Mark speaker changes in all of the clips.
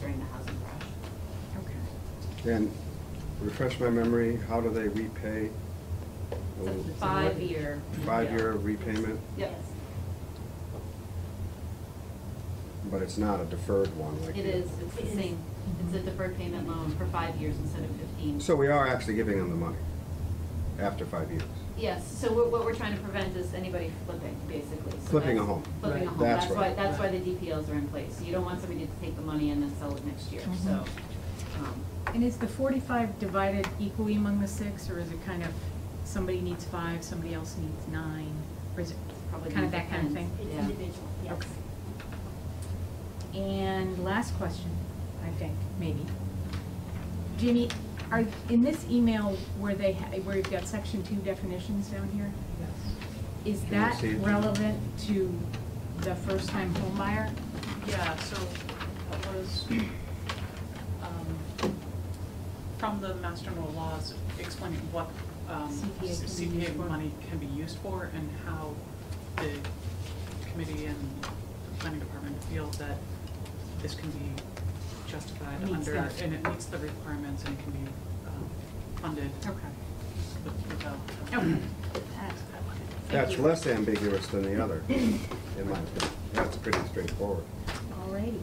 Speaker 1: during the housing crash.
Speaker 2: Okay.
Speaker 3: And refresh my memory, how do they repay? Oh,
Speaker 1: It's a five-year.
Speaker 3: Five-year
Speaker 1: deal.
Speaker 3: repayment,
Speaker 1: Yes,
Speaker 3: but it's not a deferred one like.
Speaker 1: it
Speaker 3: the-
Speaker 1: is, it's the same, it's a deferred payment loan for five years instead of fifteen.
Speaker 3: So we are actually giving them the money after five years.
Speaker 1: Yes, so what, what we're trying to prevent is anybody flipping, basically. So
Speaker 3: Flipping a
Speaker 1: that's-
Speaker 3: home.
Speaker 1: Flipping a
Speaker 3: Right.
Speaker 1: home,
Speaker 3: That's
Speaker 1: that's why,
Speaker 3: right.
Speaker 1: that's why the DPLs are in place, you don't want somebody to take the money and then sell it next year,
Speaker 2: Mhm.
Speaker 1: so, um,
Speaker 2: And is the forty-five divided equally among the six, or is it kind of, somebody needs five, somebody else needs nine? Or is it
Speaker 1: probably.
Speaker 2: kind of that kind of thing?
Speaker 1: depends.
Speaker 4: It's
Speaker 1: Yeah.
Speaker 4: individual, yes.
Speaker 2: Okay. And last question, I think, maybe. Jimmy, are, in this email where they, ha- where you've got section two definitions down here, is
Speaker 3: Can you
Speaker 2: that
Speaker 3: see it?
Speaker 2: relevant to the first-time homebuyer?
Speaker 5: Yeah, so that was, um, from the master general laws explaining what, um,
Speaker 2: CPA can be used
Speaker 5: CPA
Speaker 2: for.
Speaker 5: money can be used for and how the committee and the planning department feel that this can be justified
Speaker 2: Meets
Speaker 5: under,
Speaker 2: that.
Speaker 5: and it meets the requirements and it can be, um, funded
Speaker 2: Okay.
Speaker 5: with- without.
Speaker 2: Okay.
Speaker 3: That's less ambiguous than the other, in my opinion. That's pretty straightforward.
Speaker 2: Alrighty.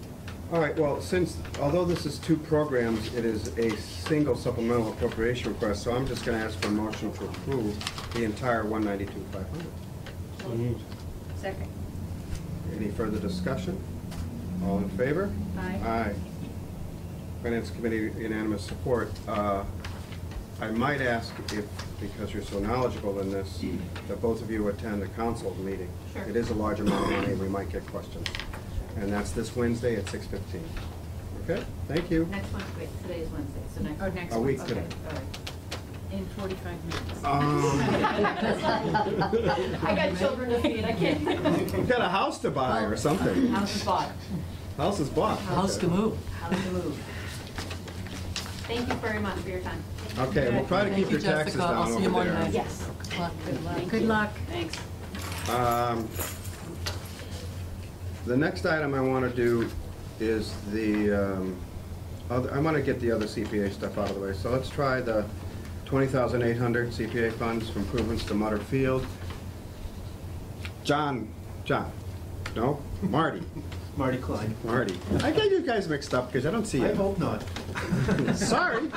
Speaker 3: All right, well, since, although this is two programs, it is a single supplemental appropriation request, so I'm just gonna ask for a motion to approve the entire one ninety-two, five hundred.
Speaker 2: Second.
Speaker 3: Any further discussion? All in favor?
Speaker 2: Aye.
Speaker 3: Aye. Finance Committee unanimous support. Uh, I might ask if, because you're so knowledgeable in this, that both of you attend a council meeting.
Speaker 1: Sure.
Speaker 3: It is a large amount of money, we might get questions. And that's this Wednesday at six fifteen. Okay, thank you.
Speaker 1: Next one, wait, today is Wednesday, so next.
Speaker 2: Oh, next
Speaker 3: A
Speaker 2: one.
Speaker 3: week
Speaker 2: Okay.
Speaker 3: today.
Speaker 1: All right.
Speaker 2: In forty-five minutes.
Speaker 3: Um,
Speaker 1: I got children to feed, I can't.
Speaker 3: You've got a house to buy or something.
Speaker 1: House is bought,
Speaker 3: House is bought.
Speaker 6: House to move.
Speaker 1: house to move. Thank you very much for your time.
Speaker 3: Okay, we'll try to
Speaker 6: Thank
Speaker 3: keep
Speaker 6: you,
Speaker 3: your taxes
Speaker 6: Jessica.
Speaker 3: down
Speaker 6: I'll
Speaker 3: over there.
Speaker 6: see you Monday.
Speaker 4: Yes.
Speaker 6: Good luck.
Speaker 2: Good luck.
Speaker 1: Thanks.
Speaker 3: Um, The next item I want to do is the, um, other- I want to get the other CPA stuff out of the way. So let's try the 20,800 CPA funds for improvements to Mutter Field. John, John, no, Marty,
Speaker 7: Marty Klein.
Speaker 3: Marty. I got you guys mixed up because I don't see
Speaker 7: I
Speaker 3: you.
Speaker 7: hope not.
Speaker 3: Sorry.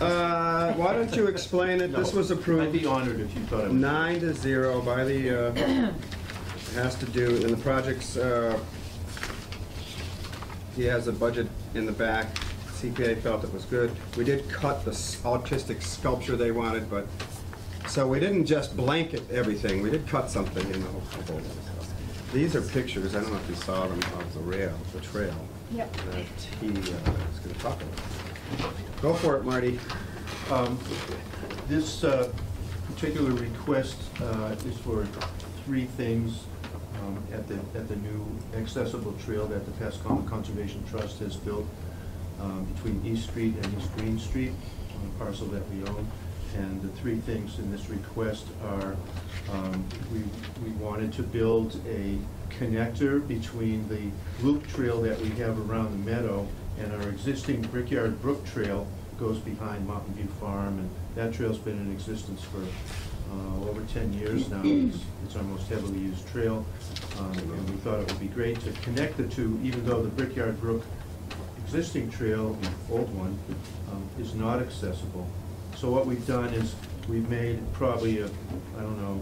Speaker 3: Uh, Why don't you explain it? This
Speaker 7: No.
Speaker 3: was approved.
Speaker 7: I'd be honored if you thought I was.
Speaker 3: Nine to zero by the, uh, has to do, and the projects, uh, he has a budget in the back. CPA felt it was good. We did cut the s- artistic sculpture they wanted, but, so we didn't just blanket everything, we did cut something in the whole. the whole- These are pictures, I don't know if you saw them, of the rail, the trail.
Speaker 2: Yep.
Speaker 3: That he uh, is gonna talk about. Go for it, Marty.
Speaker 7: Um, This uh, particular request uh, is for three things um, at the, at the new accessible trail that the Pascoma Conservation Trust has built um, between East Street and East Green Street on a parcel that we own. And the three things in this request are, um, we, we wanted to build a connector between the loop trail that we have around the meadow and our existing Brickyard Brook Trail goes behind Mountain View Farm, and that trail's been in existence for uh, over 10 years now. It's it's our most heavily used trail, um, and we thought it would be great to connect the two, even though the Brickyard Brook existing trail, the old one, um, is not accessible. So what we've done is, we've made probably a, I don't know,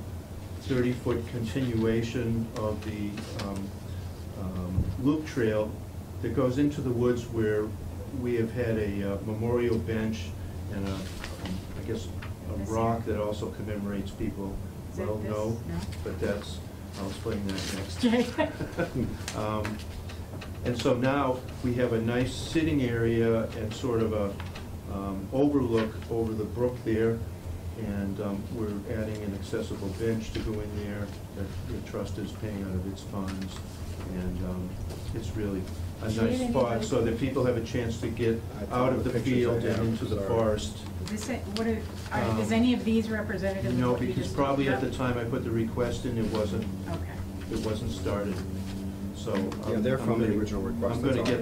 Speaker 7: 30-foot continuation of the um, um, loop trail that goes into the woods where we have had a uh, memorial bench and a, um, I guess, a
Speaker 2: This
Speaker 7: rock that also commemorates people.
Speaker 2: Is that
Speaker 7: Well,
Speaker 2: this?
Speaker 7: no,
Speaker 2: No.
Speaker 7: but that's, I'll explain that next.
Speaker 2: Okay.
Speaker 7: Um, And so now, we have a nice sitting area and sort of a um, overlook over the brook there, and um, we're adding an accessible bench to go in there that the trust is paying out of its funds, and um, it's really a
Speaker 2: Do you
Speaker 7: nice
Speaker 2: have
Speaker 7: spot,
Speaker 2: any-
Speaker 7: so that people have a chance to get
Speaker 3: I thought
Speaker 7: out of
Speaker 3: the
Speaker 7: the
Speaker 3: pictures I
Speaker 7: field and
Speaker 3: have,
Speaker 7: into the
Speaker 3: sorry.
Speaker 7: forest.
Speaker 2: This, what are, are- is
Speaker 7: Um,
Speaker 2: any of these representative of
Speaker 7: No,
Speaker 2: what you
Speaker 7: because
Speaker 2: just
Speaker 7: probably at the
Speaker 2: talked
Speaker 7: time I put the request in, it wasn't
Speaker 2: about? Okay.
Speaker 7: it wasn't started, so. um,
Speaker 3: Yeah, they're
Speaker 7: I'm
Speaker 3: from the
Speaker 7: gonna-
Speaker 3: original request,
Speaker 7: I'm
Speaker 3: that's
Speaker 7: gonna
Speaker 3: all.
Speaker 7: get